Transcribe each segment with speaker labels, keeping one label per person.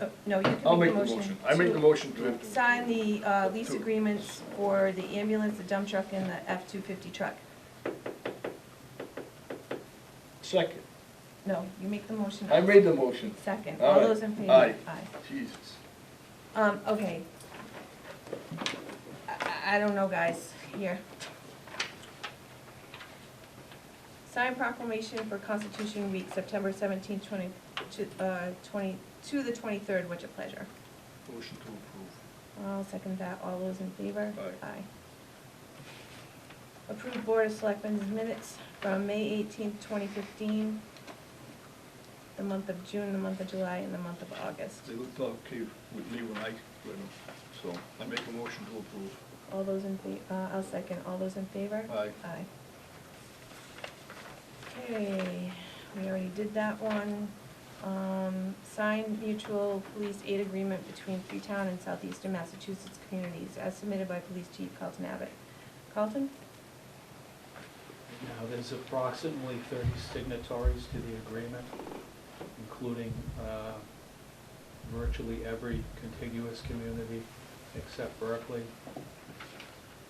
Speaker 1: Oh, No, you
Speaker 2: I'll
Speaker 1: can
Speaker 2: make the motion. I make the motion to,
Speaker 1: To Sign the uh, lease
Speaker 2: To-
Speaker 1: agreements for the ambulance, the dump truck, and the F-250 truck.
Speaker 2: second.
Speaker 1: No, you make the motion.
Speaker 2: I made the motion.
Speaker 1: Second,
Speaker 2: All
Speaker 1: all
Speaker 2: right.
Speaker 1: those in favor?
Speaker 2: Aye. Jesus.
Speaker 1: Um, okay. I- I, I don't know, guys, here. Sign proclamation for Constitution Week, September seventeenth, twenty, to, uh, twenty, to the twenty-third, which a pleasure.
Speaker 2: Motion to approve.
Speaker 1: I'll second that, all those in favor?
Speaker 2: Aye.
Speaker 1: Approved Board of Selectmen's minutes from May eighteenth, twenty fifteen, the month of June, the month of July, and the month of August.
Speaker 2: They looked okay with me when I read them, so I make a motion to approve.
Speaker 1: All those in fa, uh, I'll second, all those in favor?
Speaker 2: Aye.
Speaker 1: Aye. Okay, we already did that one. Um, signed mutual police aid agreement between Freetown and southeastern Massachusetts communities as submitted by Police Chief Carlton Abbott. Carlton?
Speaker 3: Now, there's approximately 30 signatories to the agreement, including uh, virtually every contiguous community except Berkeley.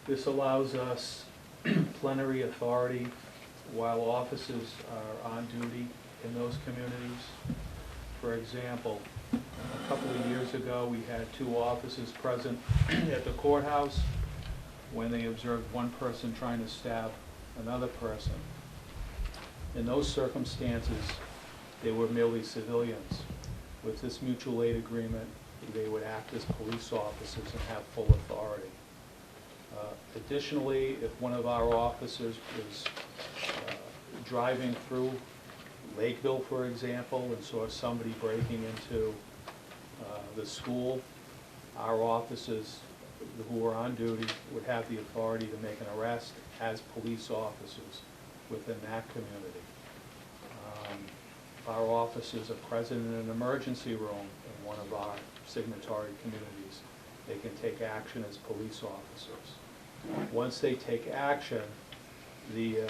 Speaker 3: This allows us plenary authority while officers are on duty in those communities. For example, a couple of years ago, we had two officers present at the courthouse when they observed one person trying to stab another person. In those circumstances, they were merely civilians. With this mutual aid agreement, they would act as police officers and have full authority. Uh, Additionally, if one of our officers was uh, driving through Lakeville, for example, and saw somebody breaking into uh, the school, our officers who are on duty would have the authority to make an arrest as police officers within that community. Um, Our officers are present in an emergency room in one of our signatory communities. They can take action as police officers. Once they take action, the, uh,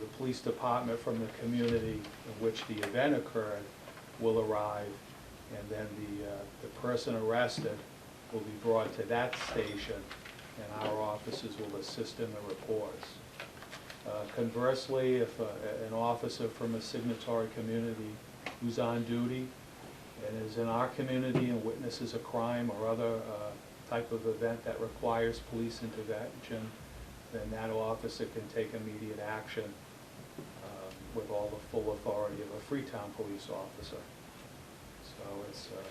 Speaker 3: the police department from the community in which the event occurred will arrive, and then the, uh, the person arrested will be brought to that station, and our officers will assist in the reports. Uh, Conversely, if uh, a- an officer from a signatory community who's on duty and is in our community and witnesses a crime or other uh, type of event that requires police intervention, then that officer can take immediate action um, with all the full authority of a Freetown police officer. So it's, uh,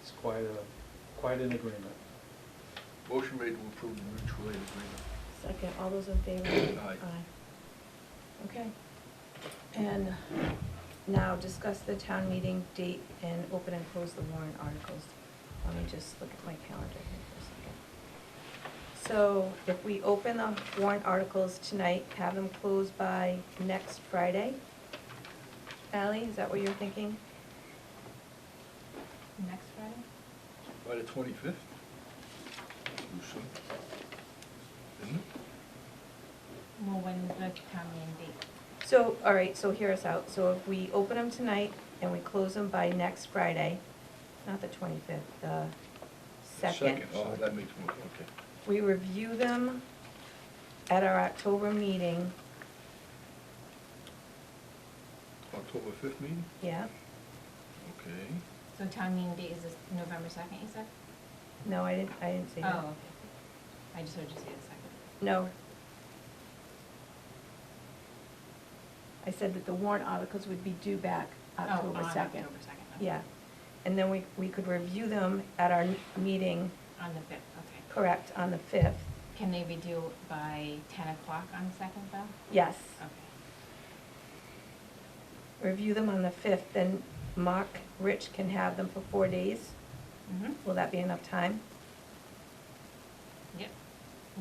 Speaker 3: it's quite a, quite an agreement.
Speaker 2: Motion made to approve the mutual aid agreement.
Speaker 1: Second, all those in favor?
Speaker 2: Aye.
Speaker 1: Okay. And now discuss the town meeting date and open and close the warrant articles. Let me just look at my calendar here for a second. So if we open the warrant articles tonight, have them closed by next Friday? Ally, is that what you're thinking? Next Friday?
Speaker 2: By the twenty-fifth? Isn't it?
Speaker 4: Well, when is the town meeting date?
Speaker 1: So, all right, so hear us out. So if we open them tonight and we close them by next Friday, not the twenty-fifth, the second,
Speaker 2: Oh, that makes more, okay.
Speaker 1: we review them at our October meeting,
Speaker 2: October fifth meeting?
Speaker 1: yeah?
Speaker 2: Okay.
Speaker 4: So town meeting date is this November second, you said?
Speaker 1: No, I didn't, I didn't say that.
Speaker 4: Oh, okay. I just heard you say the second.
Speaker 1: No. I said that the warrant articles would be due back October
Speaker 4: Oh, on
Speaker 1: second.
Speaker 4: October second.
Speaker 1: Yeah, and then we, we could review them at our meeting,
Speaker 4: On the fifth, okay.
Speaker 1: correct, on the fifth,
Speaker 4: Can they be due by ten o'clock on the second though?
Speaker 1: yes.
Speaker 4: Okay.
Speaker 1: review them on the 5th, then Mark, Rich can have them for four days.
Speaker 4: Mm-hmm.
Speaker 1: Will that be enough time?
Speaker 4: Yep.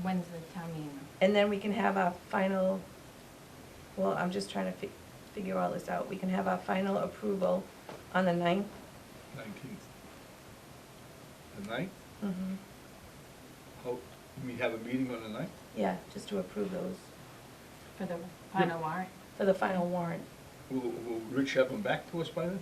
Speaker 4: When's the town meeting?
Speaker 1: And then we can have our final, well, I'm just trying to fi- figure all this out. We can have our final approval on the 9th.
Speaker 2: Nineteenth. The ninth?
Speaker 1: Mm-hmm.
Speaker 2: How, we have a meeting on the ninth?
Speaker 1: Yeah, just to approve those
Speaker 4: For the final warrant?
Speaker 1: for the final warrant.
Speaker 2: Will, will Rich have them back to us by then?